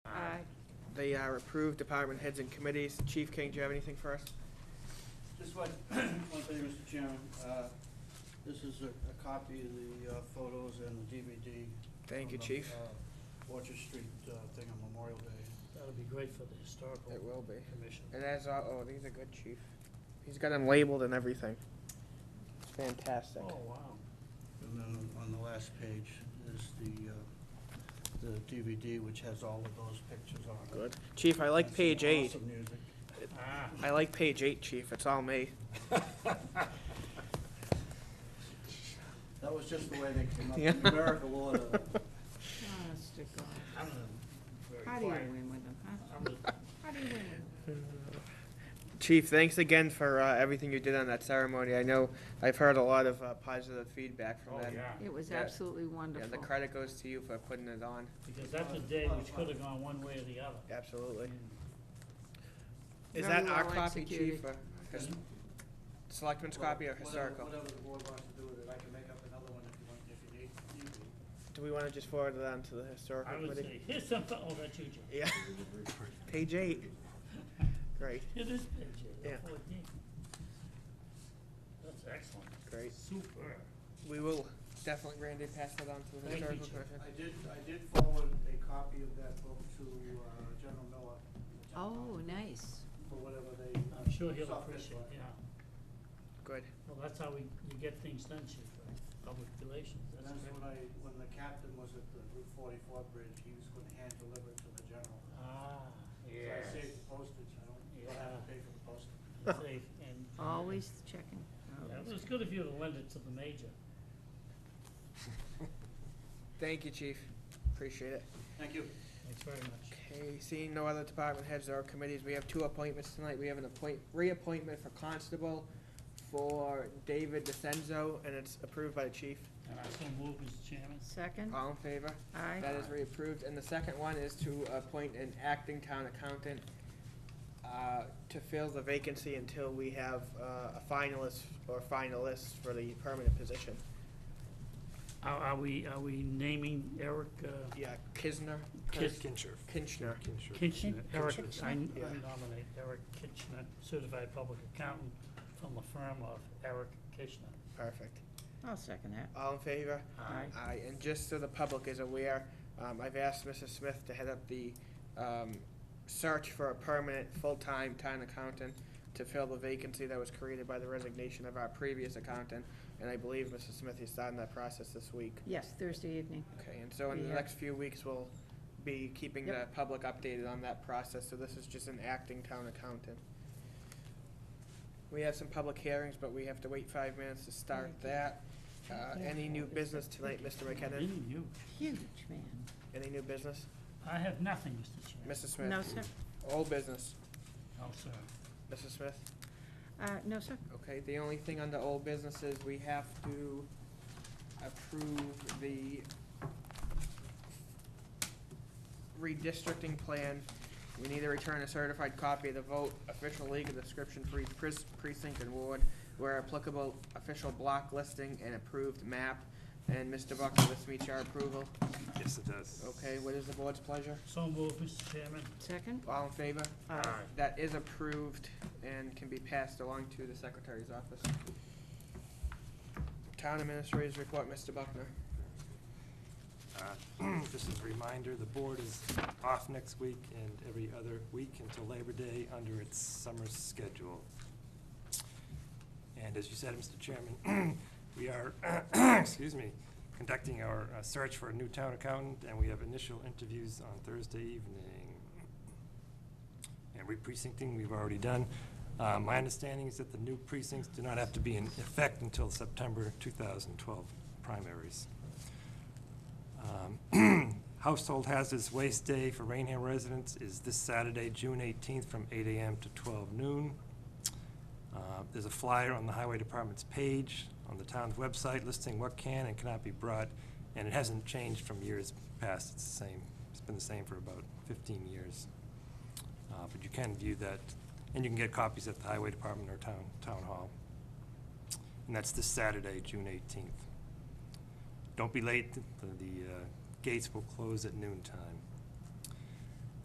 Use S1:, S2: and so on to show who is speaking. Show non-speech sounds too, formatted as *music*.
S1: They are approved, department heads and committees. Chief King, do you have anything for us?
S2: Just one, *clears throat* one thing, Mr. Chairman, uh, this is a, a copy of the uh, photos and the DVD.
S1: Thank you,
S2: from the,
S1: chief.
S2: uh, Orchard Street, uh, thing on Memorial Day.
S3: That'll be great for the historical
S1: It will be.
S3: commission.
S1: And as, al- oh, these are good, chief. He's got them labeled and everything. It's fantastic.
S3: Oh, wow.
S2: And then on the last page is the, uh, the DVD, which has all of those pictures on it.
S1: Good. Chief, I like
S2: That's
S1: page eight.
S2: Awesome music.
S3: Ah,
S1: I like page eight, chief. It's all me.
S2: That was just the way they came up,
S1: Yeah.
S2: numerical
S1: *laughs*
S2: order.
S4: Honest to God.
S3: I'm very
S4: How do you
S3: quiet.
S4: win with them, huh?
S3: I'm the-
S4: How do you win with them?
S1: Chief, thanks again for uh, everything you did on that ceremony. I know I've heard a lot of uh, positive feedback from
S3: Oh,
S1: that.
S3: yeah,
S4: It was
S1: Yeah.
S4: absolutely
S1: Yeah, the
S4: wonderful.
S1: credit goes to you for putting it on.
S3: because that's a day which could have gone one way or the other.
S1: Absolutely. Is
S4: Very
S1: that our
S4: well
S1: copy, chief?
S4: executed.
S1: or his- Selectman's copy or historical?
S2: Whatever the board wants to do with it, I can make up another one if you want, if you need, need to.
S1: Do we want to just forward it on to the historical
S3: I would
S1: committee?
S3: say, here's something, oh, that's you, Joe.
S1: Yeah. Page eight. Great,
S3: It is page eight,
S1: Yeah.
S3: the fourteen. That's excellent.
S1: great.
S3: Super.
S1: We will definitely, Randy, pass that on to the
S3: Thank you,
S1: historical
S3: Chief.
S1: commission.
S2: I did, I did forward a copy of that book to uh, General Miller.
S4: Oh, nice.
S2: For whatever they. uh,
S3: I'm sure he'll
S2: soft
S3: appreciate
S2: disk
S3: it, yeah.
S1: Good.
S3: Well, that's how we, you get things done, chief, right? Public relations,
S2: And that's
S3: that's great.
S2: when I, when the captain was at the Route forty-four bridge, he was gonna hand deliver it to the general.
S3: Ah,
S2: So I
S3: yes.
S2: saved the postage, I don't, don't have to pay for the postage.
S1: *laughs*
S3: Safe and-
S4: Always checking.
S3: Yeah,
S4: Always.
S3: It was good of you to lend it to the major.
S1: Thank you, chief. Appreciate it.
S2: Thank you.
S3: Thanks very much.
S1: Okay, seeing no other department heads or committees, we have two appointments tonight. We have an appoint, reappointment for constable for David DeCenzo, and it's approved by the chief.
S3: And I so move, Mr. Chairman.
S4: Second?
S1: All in favor?
S4: Aye.
S1: That is reapproved. And the second one is to appoint an acting town accountant uh, to fill the vacancy until we have uh, a finalist or finalists for the permanent position.
S3: Are, are we, are we naming Eric uh,
S1: Yeah, Kisner,
S3: Kis-
S1: Kinchner.
S3: Kitchener? Eric, I I
S1: Yeah.
S3: nominate Eric Kitchener, certified public accountant from the firm of Eric Kitchener.
S1: Perfect.
S4: I'll second that.
S1: All in favor?
S4: Aye.
S1: Aye, and just so the public is aware, um, I've asked Mrs. Smith to head up the, um, search for a permanent, full-time town accountant to fill the vacancy that was created by the resignation of our previous accountant, and I believe Mrs. Smith is starting that process this week.
S4: Yes, Thursday evening.
S1: Okay, and so in the
S4: Yeah.
S1: next few weeks, we'll be keeping the public updated on that process, so this is just an acting town accountant. We have some public hearings, but we have to wait five minutes to start that. Uh, any new business tonight, Mr. McKenna?
S3: Being you.
S4: Huge, man.
S1: Any new business?
S3: I have nothing, Mr. Chairman.
S1: Mrs. Smith?
S4: No, sir.
S1: Old business,
S3: No, sir.
S1: Mrs. Smith?
S4: Uh, no, sir.
S1: Okay, the only thing under old business is we have to approve the redistricting plan. We need to return a certified copy of the vote, official legal description for each pres- precinct and ward, where applicable, official block listing and approved map. And Mr. Buckner, this meets your approval.
S5: Yes, it does.
S1: Okay, what is the board's pleasure?
S3: So move, Mr. Chairman.
S4: Second?
S1: All in favor?
S4: Aye.
S1: That is approved and can be passed along to the secretary's office. Town administrators report, Mr. Buckner.
S5: Uh, *clears throat* Just as a reminder, the board is off next week and every other week until Labor Day under its summer schedule. And as you said, Mr. Chairman, *clears throat* we are, excuse me, conducting our uh, search for a new town accountant, and we have initial interviews on Thursday evening. And re-precincting, we've already done. Uh, My understanding is that the new precincts do not have to be in effect until September 2012 primaries. Um, *clears throat* Household Hazardous Waste Day for Rainham residents is this Saturday, June 18th, from 8 a.m. to 12 noon. Uh, There's a flyer on the Highway Department's page on the town's website listing what can and cannot be brought, and it hasn't changed from years past. It's the same, it's been the same for about 15 years. Uh, But you can view that, and you can get copies at the Highway Department or Town, Town Hall. And that's this Saturday, June 18th. Don't be late, the, the uh, gates will close at noon time.